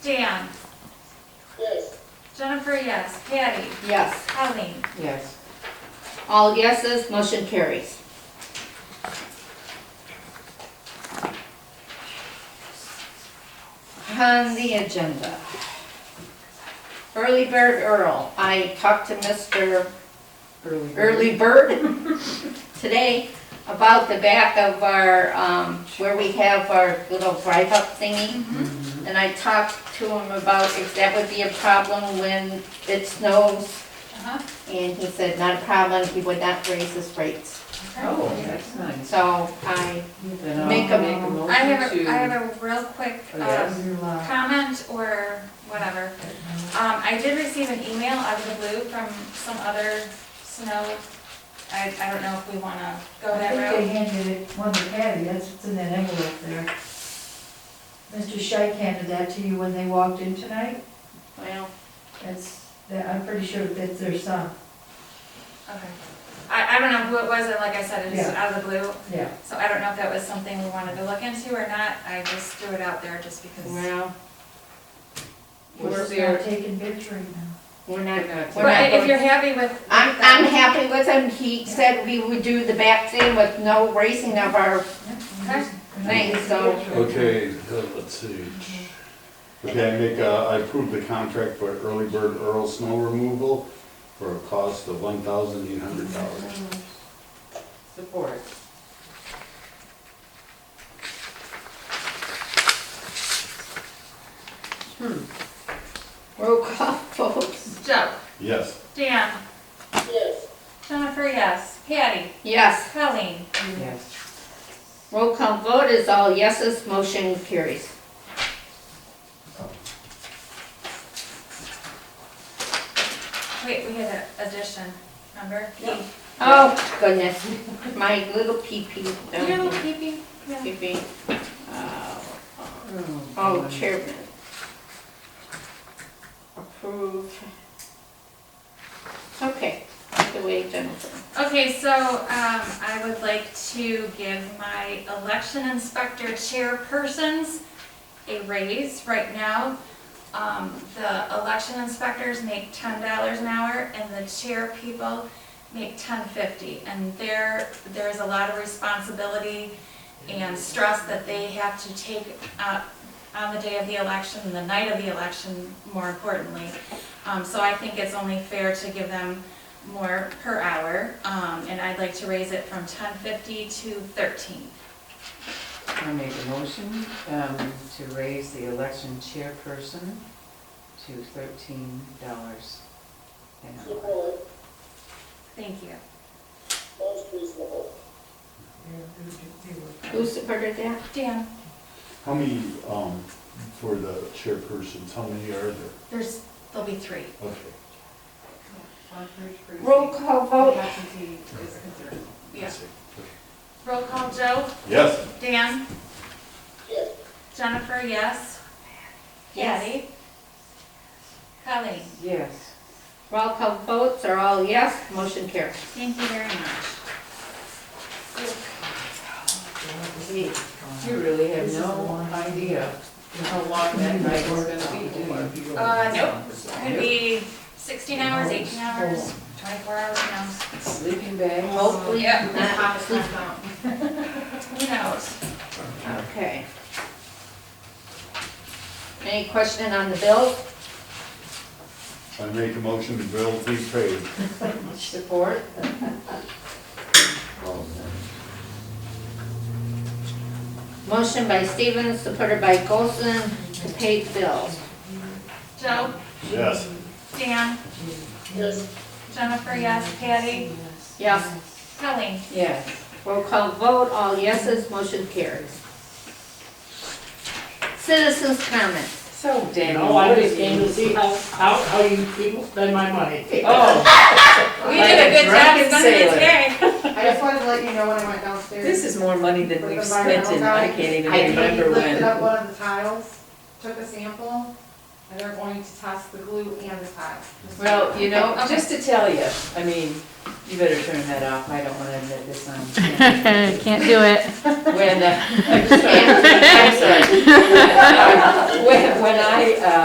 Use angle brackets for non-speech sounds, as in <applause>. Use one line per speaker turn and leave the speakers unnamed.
Dan,
Yes.
Jennifer, yes. Patty,
Yes.
Colleen,
Yes. All yeses, motion carries. On the agenda. Early Bird Earl, I talked to Mr. Early Bird <laughs> today about the back of our, um, where we have our little drive-up thingy.
Oh, Mm-hmm.
And I talked to him about if that would be a problem when it snows
uh-huh,
and he said, not a problem, he would not raise his rates.
Oh, that's nice.
So I,
Then I'll
Make a-
Oh. I have,
motion
a
to-
I have a real quick,
Oh, yes.
um, comment or whatever. Um, I did receive an email out of the blue from some other snow, I, I don't know if we wanna go
I
that
think
route.
they handed it, one to Patty, that's what's in that envelope there. Mr. Shike handed that to you when they walked in tonight,
well,
that's, that- I'm pretty sure that's their son,
Okay. I, I don't know who it was, and like I said, it was out of the blue,
yeah.
so I don't know if that was something we wanted to look into or not. I just threw it out there just because.
well,
Was
We're
there,
not taking victory now.
we're not, we're not
But if you're
going.
happy with.
I'm, I'm happy with him, he said we would do the back thing with no raising of our,
Okay.
We're not
Thanks,
taking
so-
victory.
Okay, uh, let's see. Okay, I make, uh, I approve the contract for early bird Earl snow removal for a cost of one thousand eight hundred dollars.
support.
roll call <laughs> votes.
Joe,
Yes,
Dan,
Yes.
Jennifer, yes. Patty,
Yes,
Colleen,
Yes.
roll call vote is all yeses, motion carries.
wait, we had an addition, remember?
Oh, goodness, my little pee pee.
Your little peepee, Uh, yeah.
Pee pee.
Hmm.
Oh, chairman. Approved. Okay, take it away, Jennifer.
Okay, so um, I would like to give my election inspector chairpersons a raise right now. Um, The election inspectors make ten dollars an hour and the chair people make ten fifty. And there, there's a lot of responsibility and stress that they have to take up on the day of the election, the night of the election, more importantly. Um, So I think it's only fair to give them more per hour, um, and I'd like to raise it from ten fifty to thirteen.
I make a motion um, to raise the election chairperson to thirteen dollars an hour.
Support.
Thank you.
Most reasonable.
Yeah, they were- they were-
Who supported that?
Dan,
how many, um, for the chairpersons, how many are there?
there's, there'll be three.
Okay,
Roll call vote.
I
Yeah.
see.
Roll call, Joe,
Yes,
Dan,
Yes.
Jennifer, yes.
Yes.
Patty? Colleen,
Yes.
Roll call votes are all yes, motion carries.
thank you very much.
You really have no idea how long that night is gonna be, do you?
Uh, nope, could be sixteen hours, eighteen hours, twenty-four hours, who knows?
Sleeping bags,
Hopefully
Yep.
not.
Who knows?
Okay. Any question on the bill?
I make a motion to bill be paid.
support?
Motion by Stevens, supported by Golson, to pay the bills.
Joe,
Yes,
Dan,
Yes.
Jennifer, yes. Patty,
Yes.
Colleen,
Yes.
Roll call vote, all yeses, motion carries. Citizens' comments.
So Daniel.
No, I
what
just
do you-
came to see how, how, how you people spend my money.
Oh,
we did a good job, it's gonna be
Drunken sailor.
today.
I just wanted to let you know when I went downstairs.
This is more money than we've spent and I can't even
I
remember
lifted up
when.
one of the tiles, took a sample, and they're going to test the glue and the tile. just so
Well, you know, just to tell you, I mean, you better turn that off, I don't wanna admit this on.
Can't do it.
<laughs> When, uh, I'm sorry. When, when I, uh,